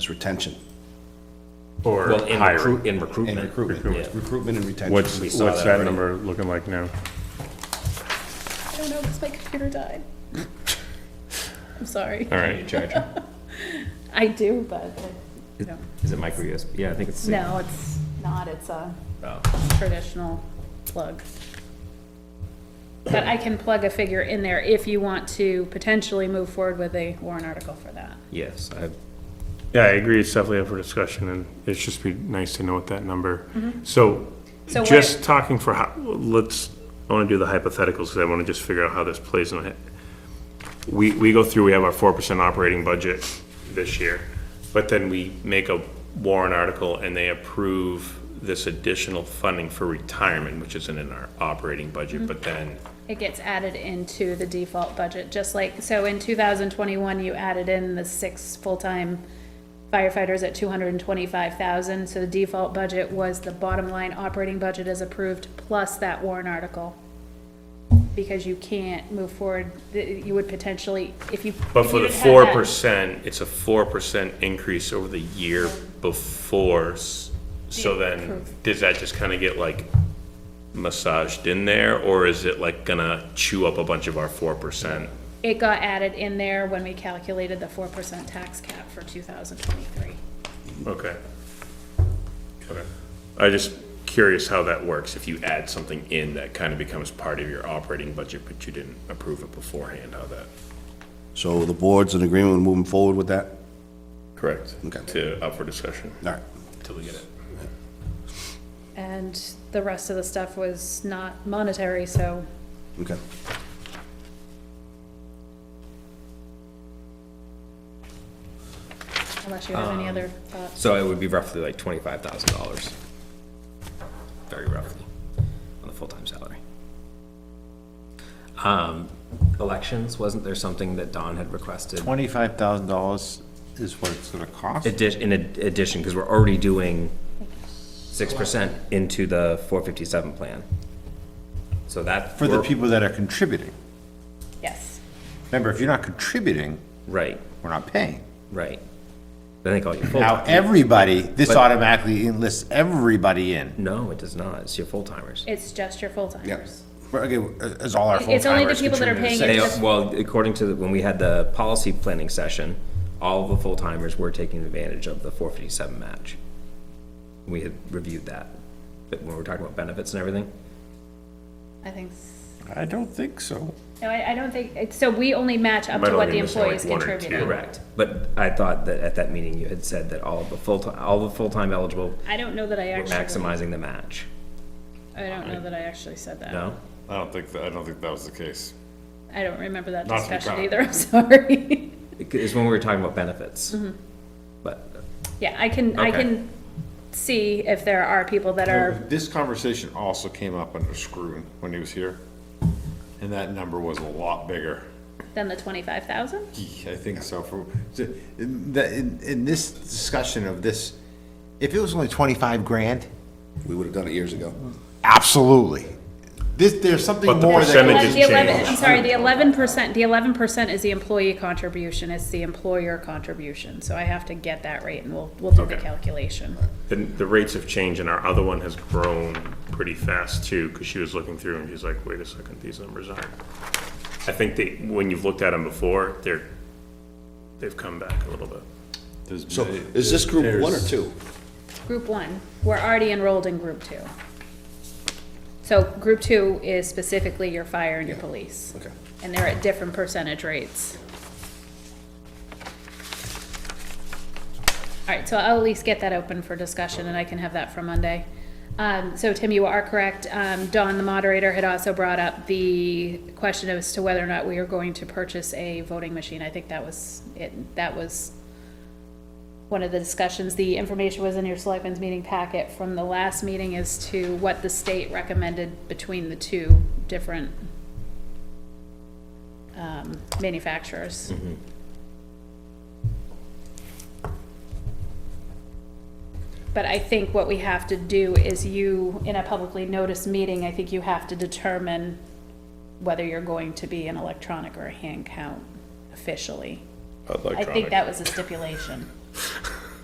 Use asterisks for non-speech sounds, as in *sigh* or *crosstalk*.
retention Or Well, in recruit, hiring. in and recruitment. recruitment, Yeah. recruitment and retention. What's, We saw what's that that already. number looking like now? I don't know, because my computer died. I'm sorry. All right. I do, but, no, Is it micro USB? Yeah, I think it's. no, it's not, it's a Oh. traditional plug. But I can plug a figure in there if you want to potentially move forward with a warrant article for that. Yes, I, Yeah, I agree, it's definitely up for discussion, and it's just be nice to know what that number. So, Mm-hmm. So what- just talking for, how- let's, I wanna do the hypotheticals, because I wanna just figure out how this plays in. the- We, we go through, we have our four percent operating budget this year, but then we make a warrant article and they approve this additional funding for retirement, which isn't in our operating Mm-hmm. budget, but then, It gets added into the default budget, just like, so in two thousand twenty-one, you added in the six full-time firefighters at two hundred and twenty-five thousand, so the default budget was the bottom line operating budget is approved plus that warrant article. Because you can't move forward, th- you would potentially, if you. but if for you the didn't have four that- percent, it's a four percent increase over the year before, s- so then, Approved. does that just kinda get like massaged in there, or is it like gonna chew up a bunch of our four percent? It got added in there when we calculated the four percent tax cap for two thousand twenty-three. Okay. Okay. I'm just curious how that works, if you add something in that kinda becomes part of your operating budget, but you didn't approve it beforehand, how that? So the board's in agreement with moving forward with that? Correct. Okay. To, up for discussion, All right. till we get it. And the rest of the stuff was not monetary, so Okay. unless you have any other Um, thoughts. so it would be roughly like twenty-five thousand dollars. Very roughly, on the full-time salary. Um, elections, wasn't there something that Don had requested? Twenty-five thousand dollars is what it's gonna cost? Addi- in ad- addition, because we're already doing six percent into the four fifty-seven plan. So that. For the we're- people that are contributing. Yes. Remember, if you're not contributing, Right, we're not paying. right. I think all your Now, full, everybody, this But- automatically enlists everybody in. no, it does not, it's your full-timers. It's just your full-timers. But again, uh, as all our full-timers. It's only the people that are contributing paying to They, into six. the well, according to, the- when we had the policy planning session, all the full-timers were taking advantage of the four fifty-seven match. We had reviewed that, but when we were talking about benefits and everything, I think, s- uh, I don't think so. no, I, I don't think, it's- so we only match up Might to what only the miss, like, employees one or two. contributed. correct. But I thought that at that meeting, you had said that all the full-time, all the full-time eligible I don't know that I were actually, maximizing the match, I don't know that I actually said that. no? I don't think, that. I don't think that was the case. I don't remember that Not to be discussion proud. either, *laughs* I'm sorry. It's when we were talking about benefits. But, Yeah, I can, I Okay. can see if there are people that are, This conversation also came up under Scruton when he was here, and that number was a lot bigger. than the twenty-five thousand? I think so for, so, in, the- in in this discussion of this, If it was only twenty-five grand? We would've done it years ago. Absolutely. This, there's something But the more percentage that. is- The eleven, change. I'm sorry, the eleven percent, the eleven percent is the employee contribution, it's the employer contribution, so I have to get that rate and we'll, we'll do the Okay. calculation. The, the rates have changed and our other one has grown pretty fast too, because she was looking through and she's like, wait a second, these numbers aren't. I think they, when you've looked at them before, they're, they've come back a little bit. there's. So is this group one or two? Group one, we're already enrolled in group two. So group two is specifically your fire and your police. Okay. And they're at different percentage rates. All right, so I'll at least get that open for discussion and I can have that for Monday. Um, so Tim, you are correct. Um, Dawn, the moderator, had also brought up the question as to whether or not we are going to purchase a voting machine. I think that was, it, that was one of the discussions, the information was in your selectmen's meeting packet from the last meeting as to what the state recommended between the two different um, manufacturers. But I think what we have to do is you, in a publicly noticed meeting, I think you have to determine whether you're going to be an electronic or a hand count officially. I think that was a stipulation.